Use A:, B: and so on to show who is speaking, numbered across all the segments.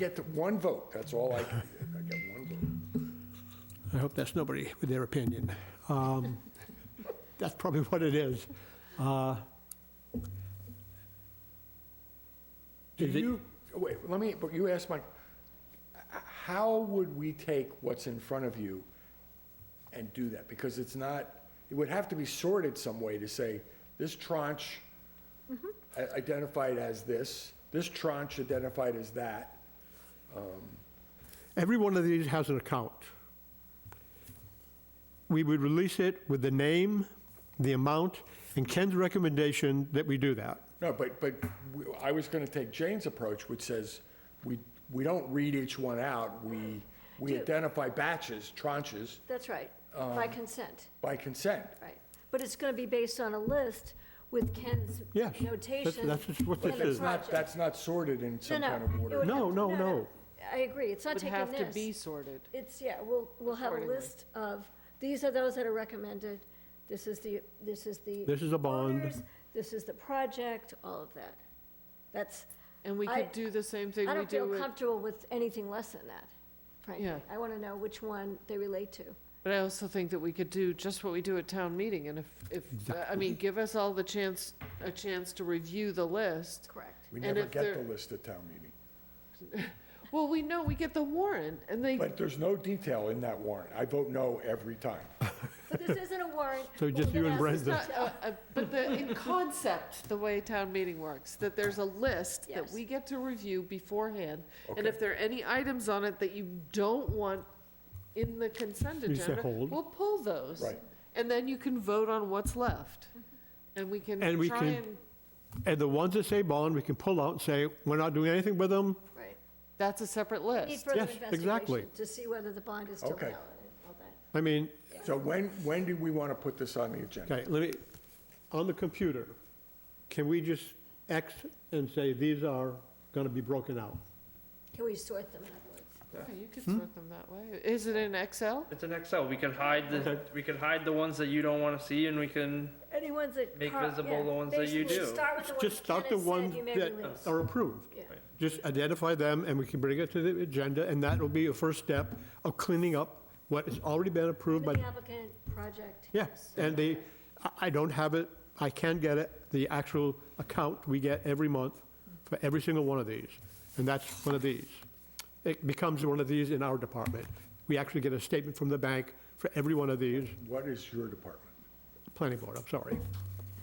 A: get the one vote, that's all I, can do. I get one vote.
B: I hope that's nobody with their opinion. Um, That's probably what it is. Uh,
A: Do
B: Is it-
A: you, wait, let me, but you asked Mike, h- how would we take what's in front of you and do that? Because it's not, it would have to be sorted some way to say, this tranche i- identified as this, this tranche identified as that.
B: Every one of these has an account. We would release it with the name, the amount, and Ken's recommendation that we do that.
A: No, but, but we- I was gonna take Jane's approach, which says, we, we don't read each one out, we, we
C: Do-
A: identify batches, tranches,
C: That's right, by
B: Um,
C: consent,
A: by consent.
C: right. But it's going to be based on a list with Ken's
B: Yes, that-
C: notation.
B: that's just what
C: and
B: this
C: the
B: is.
A: That's not,
C: project.
A: that's not sorted in some
C: No, no,
A: kind of
C: it
A: order.
C: would
B: No,
C: have-
B: no, no.
C: I agree, it's not
D: would
C: taking
D: have to be
C: this.
D: sorted.
C: It's, yeah, we'll, we'll have a
D: Accordingly.
C: list of, these are those that are recommended, this is the, this is the.
B: This is a bond.
C: owners, This is the project, all of that. That's,
D: And we
C: I-
D: could do the same thing
C: I
D: we
C: don't
D: do
C: feel
D: with,
C: comfortable with anything less than that, frankly.
D: Yeah.
C: I want to know which one they relate to.
D: but I also think that we could do just what we do at town meeting. And if, if, I mean, give us all the chance, a chance to review the list.
C: Correct.
A: We
D: And
A: never
D: if
A: get
D: there-
A: the list at town meeting.
D: Well, we know, we get the warrant and they,
A: But there's no detail in that warrant. I vote no every time.
C: So this isn't a warrant.
B: So
C: we're
B: just you
C: gonna
B: and
C: ask-
D: it's
B: Brenda.
D: not, a- a- but the, in concept, the way town meeting works, that there's a list that
C: Yes.
D: we get to review beforehand. And
A: Okay.
D: if there are any items on it that you don't want in the consent
B: You say
D: agenda,
B: hold.
D: we'll pull those.
A: Right.
D: And then you can vote on what's left.
C: Mm-hmm.
D: And we can
B: And we
D: try
B: can-
D: and,
B: And the ones that say bond, we can pull out and say, we're not doing anything with them.
C: Right.
D: that's a separate
C: Need
D: list.
C: further
B: Yes, exactly.
C: investigation to see whether the bond is still
A: Okay.
C: valid and all that.
B: I mean,
A: So when, when do we want to put this on the agenda?
B: okay, let me, on the computer, can we just X and say, these are going to be broken out?
C: Can we sort them in other words?
D: Okay, You could sort them that way. Is it in Excel?
E: It's an Excel. We can hide the we can hide the ones that you don't want to see, and we can.
C: Any ones that.
E: Make
C: Carl-
E: visible
C: yeah,
E: the ones that you
C: basically
E: do.
C: start with the ones
B: Just start the
C: Kenneth said
B: ones
C: you may
B: that
C: release.
B: are approved.
C: Yeah.
B: Just identify them, and we can bring it to the agenda, and that will be a first step of cleaning up what has already been approved by,
C: The applicant, project.
B: yes. And the, I- I don't have it, I can get it, the actual account we get every month for every single one of these, and that's one of these. It becomes one of these in our department. We actually get a statement from the bank for every one of these,
A: What is your department?
B: planning board, I'm sorry.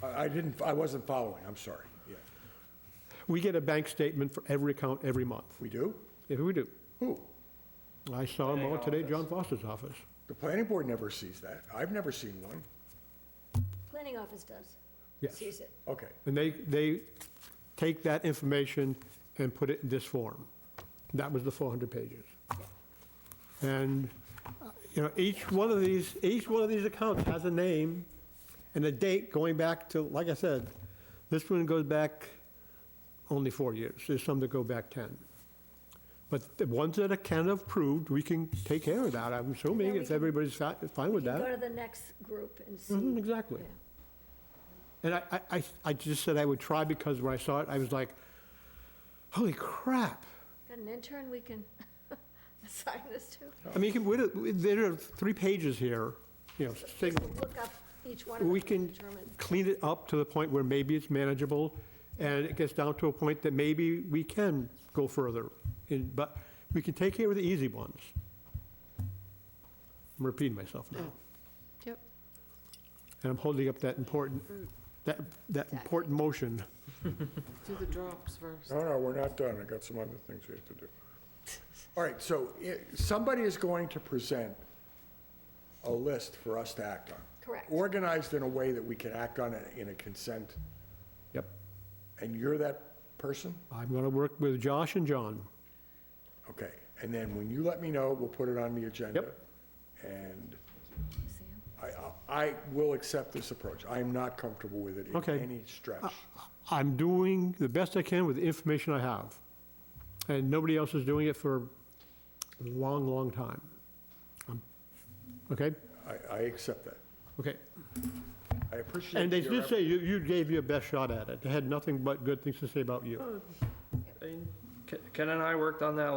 A: I I didn't, I wasn't following, I'm sorry. Yeah.
B: We get a bank statement for every account every month,
A: We do?
B: if we do.
A: Who?
B: I saw them all
E: Planning
B: today,
E: office.
B: John Foster's office.
A: The planning board never sees that. I've never seen one.
C: Planning office does.
B: Yes.
C: Sees it.
A: Okay,
B: And they, they take that information and put it in this form. That was the 400 pages. And, uh, you know, each one of these, each one of these accounts has a name and a date going back to, like I said, this one goes back only four years. There's some that go back 10. But the ones that are can approved, we can take care of that, I'm assuming,
C: we
B: if
C: can-
B: everybody's fi- fine with that.
C: Go to the next group and
B: Mhm,
C: see.
B: Exactly.
C: Yeah.
B: And I, I- I, I just said I would try because when I saw it, I was like, holy crap.
C: Got an intern we can assign this to?
B: I mean, you can- we don't- there are three pages here, you know, single.
C: Look up each one of
B: We
C: them and
B: can
C: determine.
B: clean it up to the point where maybe it's manageable, and it gets down to a point that maybe we can go further. in- But we can take care of the easy ones. I'm repeating myself now.
D: Yep.
B: And I'm holding up that important, that, that important motion.
D: Do the drops first.
A: no, no, we're not done. I got some other things we have to do. All right, so i- somebody is going to present a list for us to act on.
C: Correct.
A: Organized in a way that we can act on it in a consent,
B: Yep.
A: and you're that person?
B: I'm going to work with Josh and John.
A: Okay, and then when you let me know, we'll put it on the agenda.
B: Yep.
A: And I, I I will accept this approach. I am not comfortable with it in
B: Okay. Uh,
A: any stretch.
B: I'm doing the best I can with the information I have. And nobody else is doing it for a long, long time. Um, Okay?
A: I, I accept that.
B: Okay.
A: I appreciate.
B: And they
A: your
B: did
A: effort.
B: say you, you gave your best shot at it. They had nothing but good things to say about you.
E: I mean, Ken Ken and I worked on that